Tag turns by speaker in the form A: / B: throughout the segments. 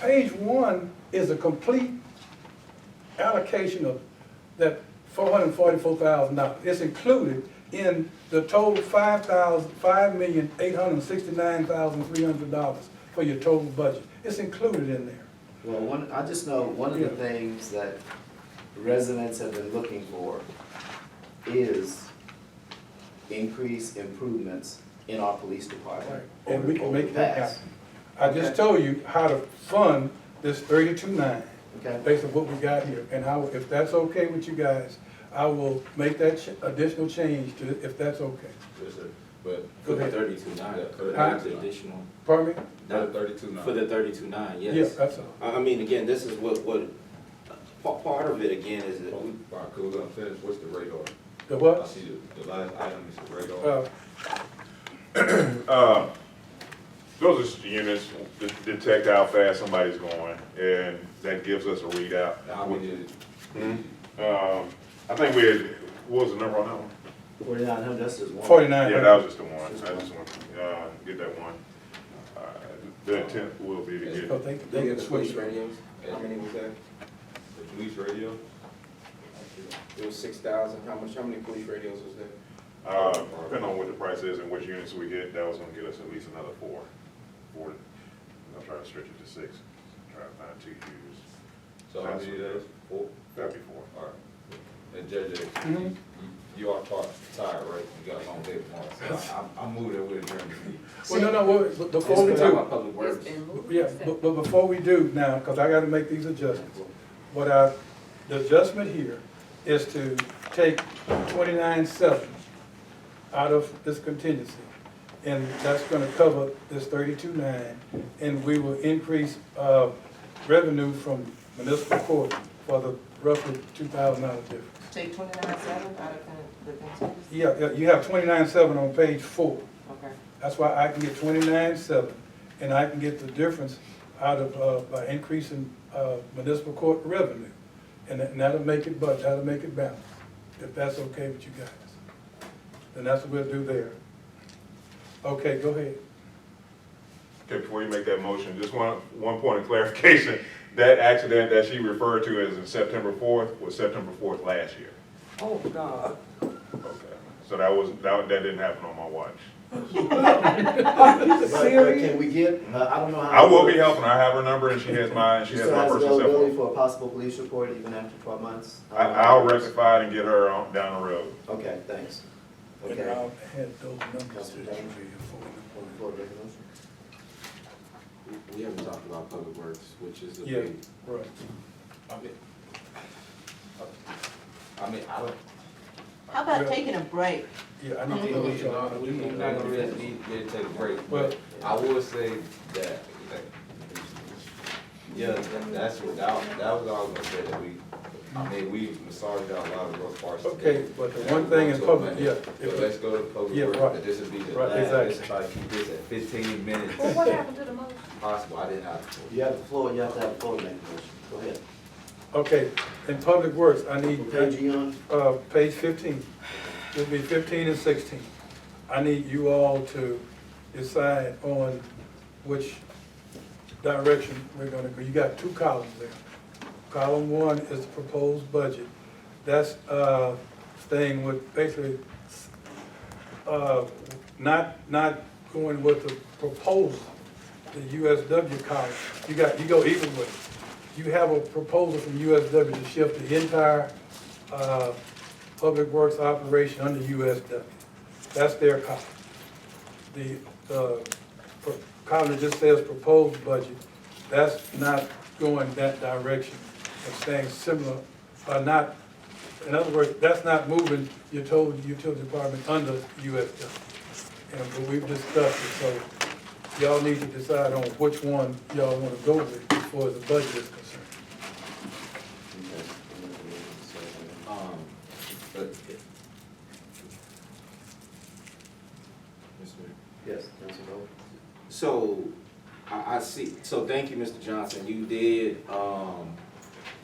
A: Page one is a complete allocation of that four hundred and forty-four thousand dollars. It's included in the total five thousand, five million, eight hundred and sixty-nine thousand, three hundred dollars for your total budget. It's included in there.
B: Well, one, I just know one of the
A: Yeah.
B: things that residents have been looking for is increased improvements in our police department.
A: And we can
B: over-
A: make that
B: over the past.
A: happen. I just
B: Okay.
A: told you how to fund this thirty-two nine.
B: Okay,
A: based on what we got here, and how, if that's okay with you guys, I will make that ch- additional change to, if that's okay.
C: Yes, sir. But
A: Go
D: For the
A: ahead.
D: thirty-two nine, for the
A: Huh?
D: additional,
A: Pardon me?
C: Not
D: not,
C: thirty-two now.
D: for the thirty-two nine,
A: Yeah, uh,
D: yes.
A: that's all.
D: I, I mean, again, this is what, what, pa- part of it again is that we,
C: All right, cool, I'm finished, what's the radar?
A: The
C: I
A: what?
C: see the, the last item is the radar.
A: Uh,
E: Uh, Those are just units that detect how fast somebody's going, and that gives us a readout.
C: How many is it?
E: Um, I think we had, what was the number on that one?
B: forty-nine hundred, that's just one.
A: forty-nine.
E: Yeah, that was just the one, I just want to, uh, get that one. Uh, The intent will be to
A: So
E: get,
A: they, they get switched.
D: radios, how many was that?
C: The police radio?
D: It was six thousand, how much, how many police radios was there?
E: uh, depending on what the price is and which units we get, that was gonna get us at least another four. Four, I'll try to stretch it to six, try to find two years,
C: So how many days? Four?
E: that'd be four.
C: All right. And JJ, you-
A: Mhm.
C: you are tar- tired, right? You got a long day tomorrow, so I, I I moved away during the meeting.
A: Well, no, no, wait, but before we
D: It's been
A: do,
D: about public works.
F: It's been moved.
A: yeah, but, but before we do now, because I gotta make these adjustments. What I, the adjustment here is to take twenty-nine seven out of this contingency. And that's gonna cover this thirty-two nine, and we will increase, uh, revenue from municipal court for the roughly two thousand dollar difference.
F: Take twenty-nine seven out of the, the contingency?
A: Yeah, yeah, you have twenty-nine seven on page four.
F: Okay.
A: That's why I can get twenty-nine seven, and I can get the difference out of, uh, by increasing, uh, municipal court revenue. And that- and that'll make it, but that'll make it balanced, if that's okay with you guys. Then that's what we'll do there. Okay, go ahead.
E: Okay, before you make that motion, just one, one point of clarification. That accident that she referred to as in September fourth was September fourth last year.
F: Oh, God.
E: Okay. So that was, that, that didn't happen on my watch.
B: But- but Can we get, uh, I don't know how.
E: I will be helping her. I have her number and she has mine. She
B: She
E: has
B: still
E: my
B: has
E: personal cell
B: availability
E: phone.
B: for a possible police report even after twelve months?
E: I, I'll rectify it and get her on, down the road.
B: Okay, thanks.
A: And
B: Okay.
A: I'll add those numbers to the tree
B: On the floor, resolution.
D: We- We haven't talked about public works, which is a
A: Yeah,
D: big,
A: right.
C: I mean, I mean, I don't.
G: How about taking a break?
A: Yeah, I
C: I
A: need to
C: mean,
A: know
C: we,
A: what
C: you know,
A: y'all.
C: we, we're not gonna really need, need to take a break,
A: Well-
C: but I will say that, that, yeah, that- that's what, that, was- that was all I was gonna say, that we, I mean, we massaged out a lot of those parts.
A: Okay, but the one thing in public, yeah,
C: But let's go to
A: Yeah,
C: public
A: right.
C: work, but this would be the
A: Right,
C: last, let's
A: exactly.
C: try to keep this at fifteen minutes
F: Well, what happened to the motion?
C: possible, I didn't have. to-
B: You have the floor, you have to have the floor to make the motion. Go ahead.
A: okay, in public works, I
B: What
A: need.
B: page are you on?
A: Uh, page fifteen, it'll be fifteen and sixteen. I need you all to decide on which direction we're gonna go. You got two columns there. Column one is the proposed budget. That's, uh, staying with basically, uh, not, not going with the proposal, the USW column. You got, you go even with, you have a proposal from USW to shift the entire uh, Public Works operation under USW. That's their column. The, the pro- column that just says proposed budget, that's not going that direction. It's staying similar, uh, not, in other words, that's not moving your total utility department under USW. And, but we've discussed it, so y'all need to decide on which one y'all wanna go with before the budget is concerned.
D: um,
C: But
B: Yes, Councilor Bowles.
D: So, I, I see, so thank you, Mr. Johnson, you did, um,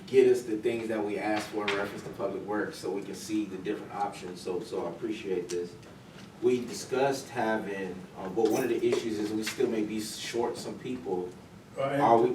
D: get us the things that we asked for in reference to public works, so we can see the different options, so, so I appreciate this. We discussed um, having, uh, but one of the issues is we still may be short some people.
A: All right?
D: Are we,